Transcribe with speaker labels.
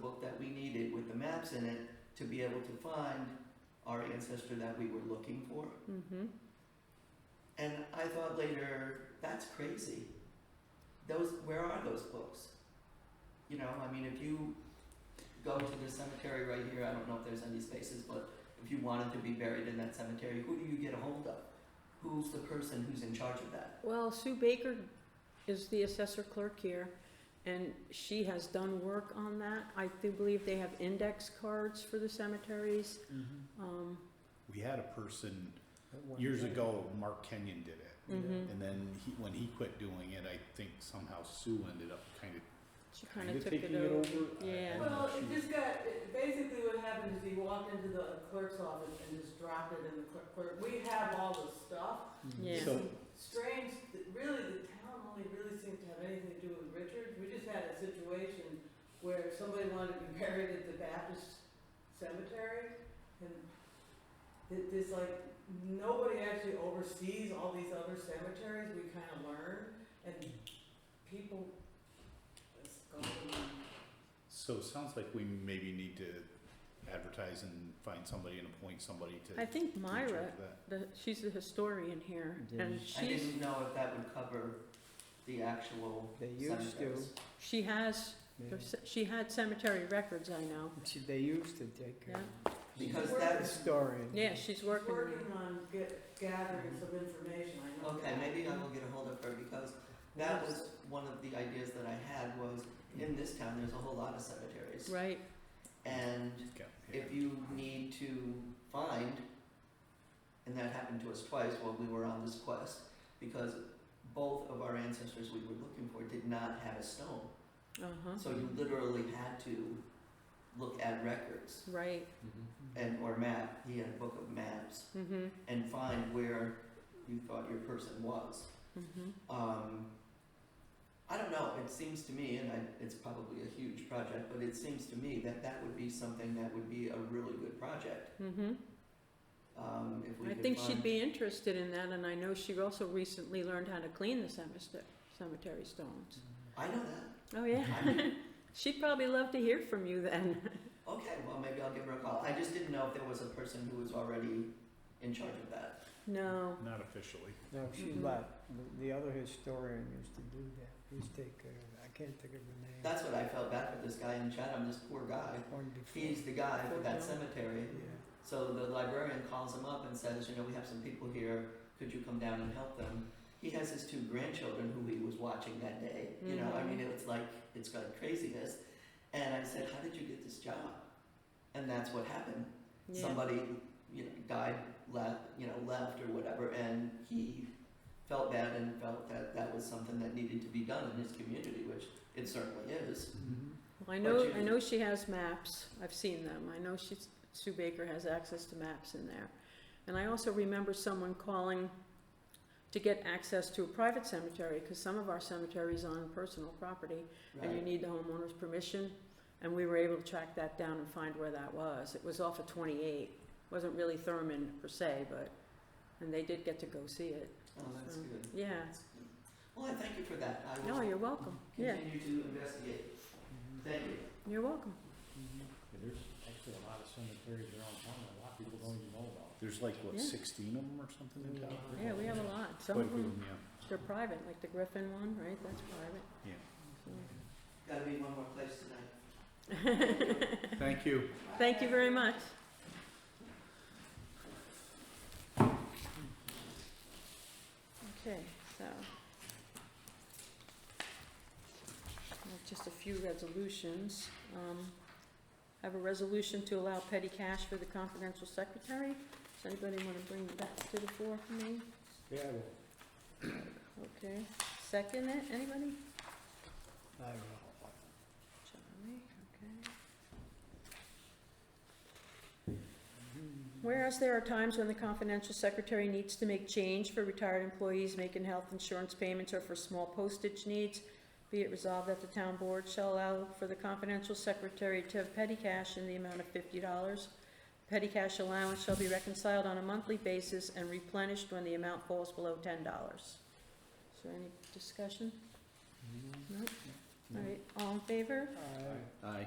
Speaker 1: book that we needed with the maps in it to be able to find our ancestor that we were looking for.
Speaker 2: Mm-hmm.
Speaker 1: And I thought later, that's crazy. Those, where are those books? You know, I mean, if you go to the cemetery right here, I don't know if there's any spaces, but if you wanted to be buried in that cemetery, who do you get a hold of? Who's the person who's in charge of that?
Speaker 2: Well, Sue Baker is the assessor clerk here, and she has done work on that. I do believe they have index cards for the cemeteries. Um,
Speaker 3: We had a person years
Speaker 2: Mm-hmm.
Speaker 3: ago, Mark Kenyon did it.
Speaker 2: mhm.
Speaker 3: And then he, when he quit doing it, I think somehow Sue ended up kind of,
Speaker 2: She kind of took it over.
Speaker 3: I- I
Speaker 2: Yeah.
Speaker 3: don't know,
Speaker 4: Well, it
Speaker 3: she-
Speaker 4: just got, it- basically what happened is he walked into the clerk's office and just dropped it in the clerk, clerk- we have all the stuff.
Speaker 2: Yeah.
Speaker 3: So,
Speaker 4: Strange, that really, the town only really seemed to have anything to do with Richard, we just had a situation where somebody wanted to be buried at the Baptist cemetery, and it, it's like, nobody actually oversees all these other cemeteries, we kinda learn, and people, it's going,
Speaker 3: so it sounds like we maybe need to advertise and find somebody and appoint somebody to.
Speaker 2: I think
Speaker 3: to in charge
Speaker 2: Myra,
Speaker 3: of that.
Speaker 2: the, she's the historian here, and
Speaker 1: I
Speaker 2: she's,
Speaker 1: didn't know if that would cover the actual
Speaker 5: They used to,
Speaker 1: cemeteries.
Speaker 2: she has,
Speaker 5: yeah.
Speaker 2: she had cemetery records, I know.
Speaker 5: She- they used to take her.
Speaker 1: Because
Speaker 5: She's a
Speaker 1: that-
Speaker 5: Historian.
Speaker 2: Yeah, she's working on it.
Speaker 4: Working on get, gathering some information, I know.
Speaker 1: Okay,
Speaker 4: that.
Speaker 1: maybe I will get a hold of her because that was one of the ideas that I had was in this town, there's a whole lot of cemeteries.
Speaker 2: right?
Speaker 1: And
Speaker 3: Okay, yeah.
Speaker 1: if you need to find, and that happened to us twice while we were on this quest, because both of our ancestors we were looking for did not have a stone.
Speaker 2: Uh-huh,
Speaker 1: So you literally had to look at records
Speaker 2: right,
Speaker 1: and, or map, he had a book of maps,
Speaker 2: mm-hmm,
Speaker 1: and find where you thought your person was.
Speaker 2: mm-hmm.
Speaker 1: Um, I don't know, it seems to me, and I, it's probably a huge project, but it seems to me that that would be something that would be a really good project.
Speaker 2: Mm-hmm.
Speaker 1: Um, if we
Speaker 2: I
Speaker 1: could
Speaker 2: think she'd
Speaker 1: find-
Speaker 2: be interested in that, and I know she also recently learned how to clean the cemetery, cemetery stones.
Speaker 1: I know that.
Speaker 2: Oh, yeah.
Speaker 1: I mean,
Speaker 2: She'd probably love to hear from you then.
Speaker 1: okay, well, maybe I'll give her a call. I just didn't know if there was a person who was already in charge of that.
Speaker 2: No,
Speaker 3: Not officially.
Speaker 5: No, she
Speaker 4: Mm-hmm.
Speaker 2: Mhm.
Speaker 5: left. The- The other historian used to do that. Used to take care of it. I can't think of her name.
Speaker 1: That's what I felt bad for this guy in Chatham, this poor guy.
Speaker 5: One before.
Speaker 1: He's the guy for that cemetery.
Speaker 5: Yeah.
Speaker 1: So the librarian calls him up and says, you know, we have some people here, could you come down and help them? He has his two grandchildren who he was watching that day, you know, I
Speaker 2: Mm-hmm.
Speaker 1: mean, it's like, it's like craziness. And I said, how did you get this job? And that's what happened.
Speaker 2: yeah,
Speaker 1: Somebody, you know, died, left, you know, left or whatever, and he felt bad and felt that that was something that needed to be done in his community, which it certainly is.
Speaker 5: Mhm.
Speaker 2: I know,
Speaker 1: you-
Speaker 2: I know she has maps, I've seen them, I know she's, Sue Baker has access to maps in there. And I also remember someone calling to get access to a private cemetery, because some of our cemeteries on personal property, and you
Speaker 1: Right.
Speaker 2: need the homeowner's permission, and we were able to track that down and find where that was. It was off of twenty-eight, wasn't really Thurman per se, but, and they did get to go see it,
Speaker 1: Oh, that's
Speaker 2: So,
Speaker 1: good.
Speaker 2: yeah.
Speaker 1: That's good. Well, I thank you for that. I
Speaker 2: No,
Speaker 1: will
Speaker 2: you're welcome, yeah,
Speaker 1: continue to investigate.
Speaker 5: Mhm.
Speaker 1: Thank you.
Speaker 2: you're welcome.
Speaker 5: Mhm.
Speaker 6: There's actually a lot of cemeteries around town that a lot of people don't even know about.
Speaker 3: There's like, what,
Speaker 2: Yeah.
Speaker 3: sixteen of them or something in town?
Speaker 2: Yeah, we have a lot. Some
Speaker 3: Quite a
Speaker 2: of
Speaker 3: few of
Speaker 2: them,
Speaker 3: 'em, yeah.
Speaker 2: they're private, like the Griffin one, right? That's private.
Speaker 1: Gotta be one more place tonight.
Speaker 3: Thank you.
Speaker 2: Thank you very much. Okay, so. Well, Just a few resolutions. Um, I have a resolution to allow petty cash for the confidential secretary. Does anybody want to bring that to the floor for me?
Speaker 6: Yeah, I will.
Speaker 2: Okay, second it, anybody?
Speaker 5: I will.
Speaker 2: Charlie, okay. Whereas there are times when the confidential secretary needs to make change for retired employees making health insurance payments or for small postage needs, be it resolved that the town board shall allow for the confidential secretary to have petty cash in the amount of fifty dollars. Petty cash allowance shall be reconciled on a monthly basis and replenished when the amount falls below ten dollars. Is there any discussion?
Speaker 5: Mhm.
Speaker 2: No? All right, all in favor?
Speaker 5: I-
Speaker 3: Aye.